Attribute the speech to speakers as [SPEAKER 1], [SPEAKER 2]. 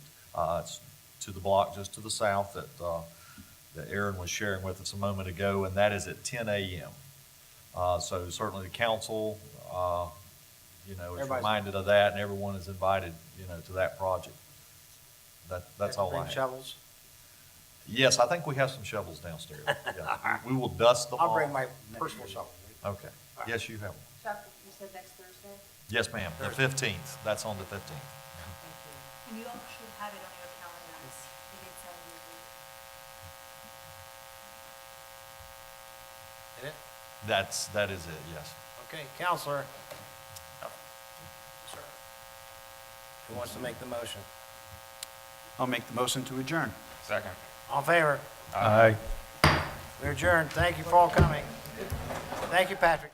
[SPEAKER 1] Uh, It's to the block just to the south that, uh, that Aaron was sharing with us a moment ago, and that is at ten AM. Uh, So certainly the council, uh, you know, is
[SPEAKER 2] Everybody's-
[SPEAKER 1] reminded of that, and everyone is invited, you know, to that project. That, that's all I
[SPEAKER 2] Bring
[SPEAKER 1] have.
[SPEAKER 2] Shovels.
[SPEAKER 1] Yes, I think we have some shovels downstairs. Yeah. We will dust them all.
[SPEAKER 2] I'll bring my personal shovel.
[SPEAKER 1] Okay. Yes, you have one.
[SPEAKER 3] Chuck, you said next Thursday?
[SPEAKER 1] Yes, ma'am, the fifteenth, that's on the fifteenth.
[SPEAKER 3] Thank you. And you all should have it on your calendars. You did tell me.
[SPEAKER 2] Hit it?
[SPEAKER 1] That's, that is it, yes.
[SPEAKER 2] Okay, counselor. Sir. Who wants to make the motion?
[SPEAKER 4] I'll make the motion to adjourn.
[SPEAKER 5] Second.
[SPEAKER 2] All in favor?
[SPEAKER 4] Aye.
[SPEAKER 2] We adjourn. Thank you for all coming. Thank you, Patrick.